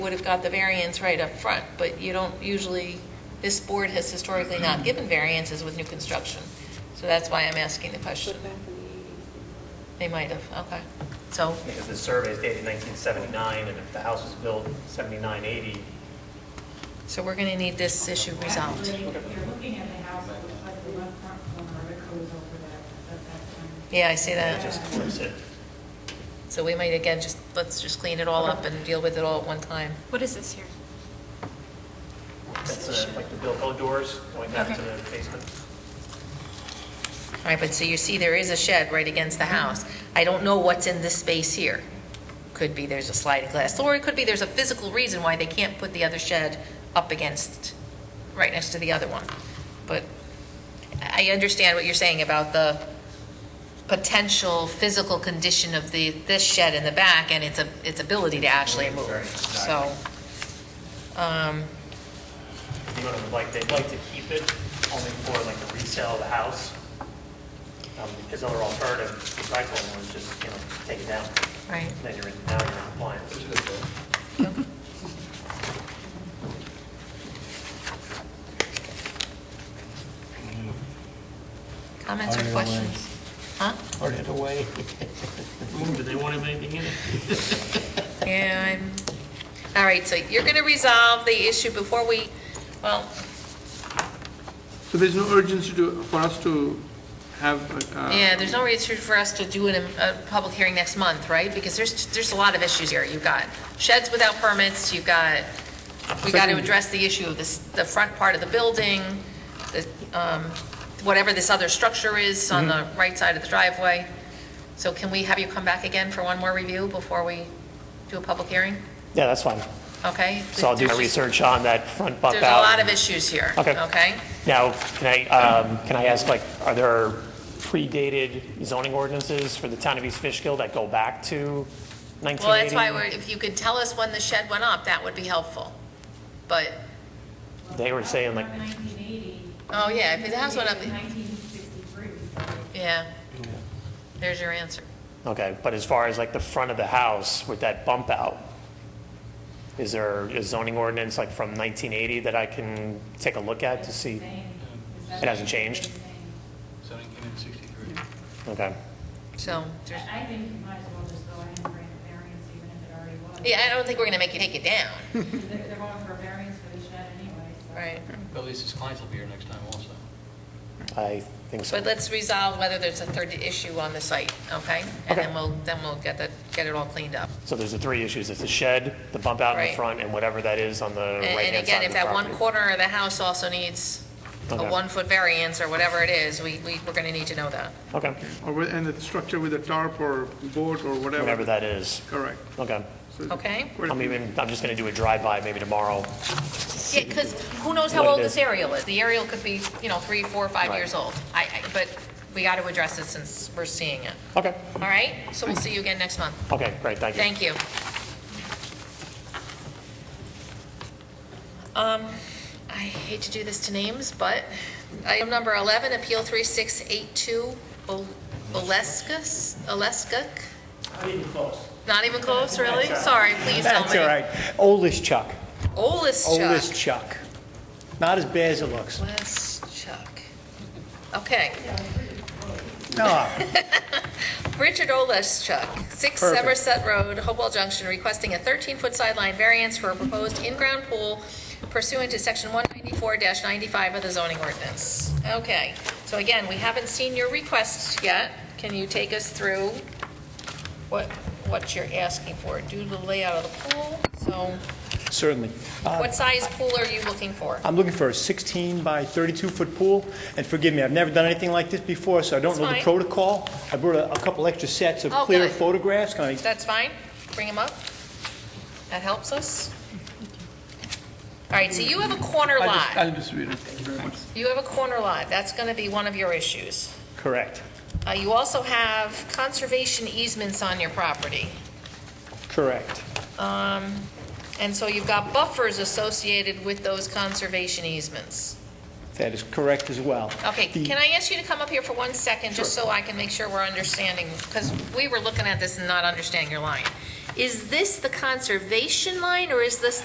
would have got the variance right up front, but you don't usually, this board has historically not given variances with new construction. So that's why I'm asking the question. They might have, okay. So, Because the survey is dated 1979, and if the house was built 79, 80, so we're going to need this issue resolved. Actually, if You're looking at the house, it looks like the left front corner, it goes over that, at that time. Yeah, I see it that. just clips it. So we might, again, just, let's just clean it all up and deal with it all at one time. What is this here? That's uh, like the Bilko doors going back to the basement. All right, but so you see there is a shed right against the house. I don't know what's in this space here. Could be there's a sliding glass door, it could be there's a physical reason why they can't put the other shed up against, right next to the other one. But I understand what you're saying about the potential physical condition of the, this shed in the back and its, a- its ability to actually move, so. You know, like, they'd like to keep it only for like the resale of the house. Um, His other alternative, the practical one, was just, you know, take it down, Right. then you're in, now you're in compliance. Comments or Either way. questions? Huh? Or it away. Did they want anything in it? Yeah, I'm, all right, so you're going to resolve the issue before we, well, So there's no urgency to, for us to have. uh, yeah, there's no reason for us to do it in a public hearing next month, right? Because there's, there's a lot of issues here. You've got sheds without permits, you've got, we got to Second- address the issue of this, the front part of the building, the, um, whatever this other structure is on Mm-hmm. the right side of the driveway. So can we have you come back again for one more review before we do a public hearing? Yeah, that's fine. Okay? So I'll do my There's just- research on that front bump out. There's a lot of issues here. Okay. Okay? Now, can I, um, can I ask, like, are there predated zoning ordinances for the town of East Fishkill that go back to 1980? Well, that's why, we're- if you could tell us when the shed went up, that would be helpful. But, They were saying, like- 1980. Oh, yeah, if the house went up- 1963. yeah, there's your answer. Okay, but as far as like the front of the house with that bump out, is there a zoning ordinance like from 1980 that I can take a look at to see? It hasn't changed? Zoning came in 63. Okay, So, I there's- I think you might as well just go ahead and grant a variance even if it already was. yeah, I don't think we're going to make you take it down. Because They're they're going for a variance for the shed anyway, so. Right. At least his clients will be here next time also. I think so. But let's resolve whether there's a third issue on the site, okay? And Okay. then we'll, then we'll get that, get it all cleaned up. So there's the three issues, it's the shed, the bump out in Right. the front, and whatever that is on the And- And right-hand again, side if of the that one property. corner of the house also needs a Okay. one-foot variance or whatever it is, we, we- we're going to need to know that. Okay, Or, with- and the structure with a tarp or boat or whatever. whatever that is, Correct. okay. So Okay. quite a I'm few- even, I'm just gonna do a drive-by maybe tomorrow. Yeah, because who knows how What it old is. this aerial is? The aerial could be, you know, three, four, five Right. years old. I, I, but we got to address it since we're seeing it. Okay, All right? So we'll see you again next month. okay, great, thank you. Thank you. Um, I hate to do this to names, but item number 11, Appeal 3682, Ol- Oleskus, Oleskuk? Not even close. Not even close, really? Sorry, please tell me. That's all right. Oldest Chuck. Oldest Oleschuk. Chuck. Not as bad as it looks. Oleschuk. Okay. No, Richard Oleschuk, 6 Perfect. Somerset Road, Hopewell Junction, requesting a 13-foot sideline variance for a proposed in-ground pool pursuant to Section 194-95 of the zoning ordinance. Okay, so again, we haven't seen your request yet. Can you take us through what, what you're asking for? Due to the layout of the pool, so certainly. Uh, what size pool are you looking for? I'm looking for a 16 by 32-foot pool, and forgive me, I've never done anything like this before, so I don't It's know the fine. protocol. I brought a a couple extra sets of Oh, clear good. photographs. Can I That's fine, bring them up. That helps us. All right, so you have a corner I'll lot. just- I'll just read it. Thank you very much. You have a corner lot, that's going to be one of your issues. Correct. Uh, You also have conservation easements on your property, Um, Correct. and so you've got buffers associated with those conservation easements. That is correct as well. Okay, The- can I ask you to come up here for one second, just so I can make sure we're understanding? Because we were looking at this and not understanding your line. Is this the conservation line or is this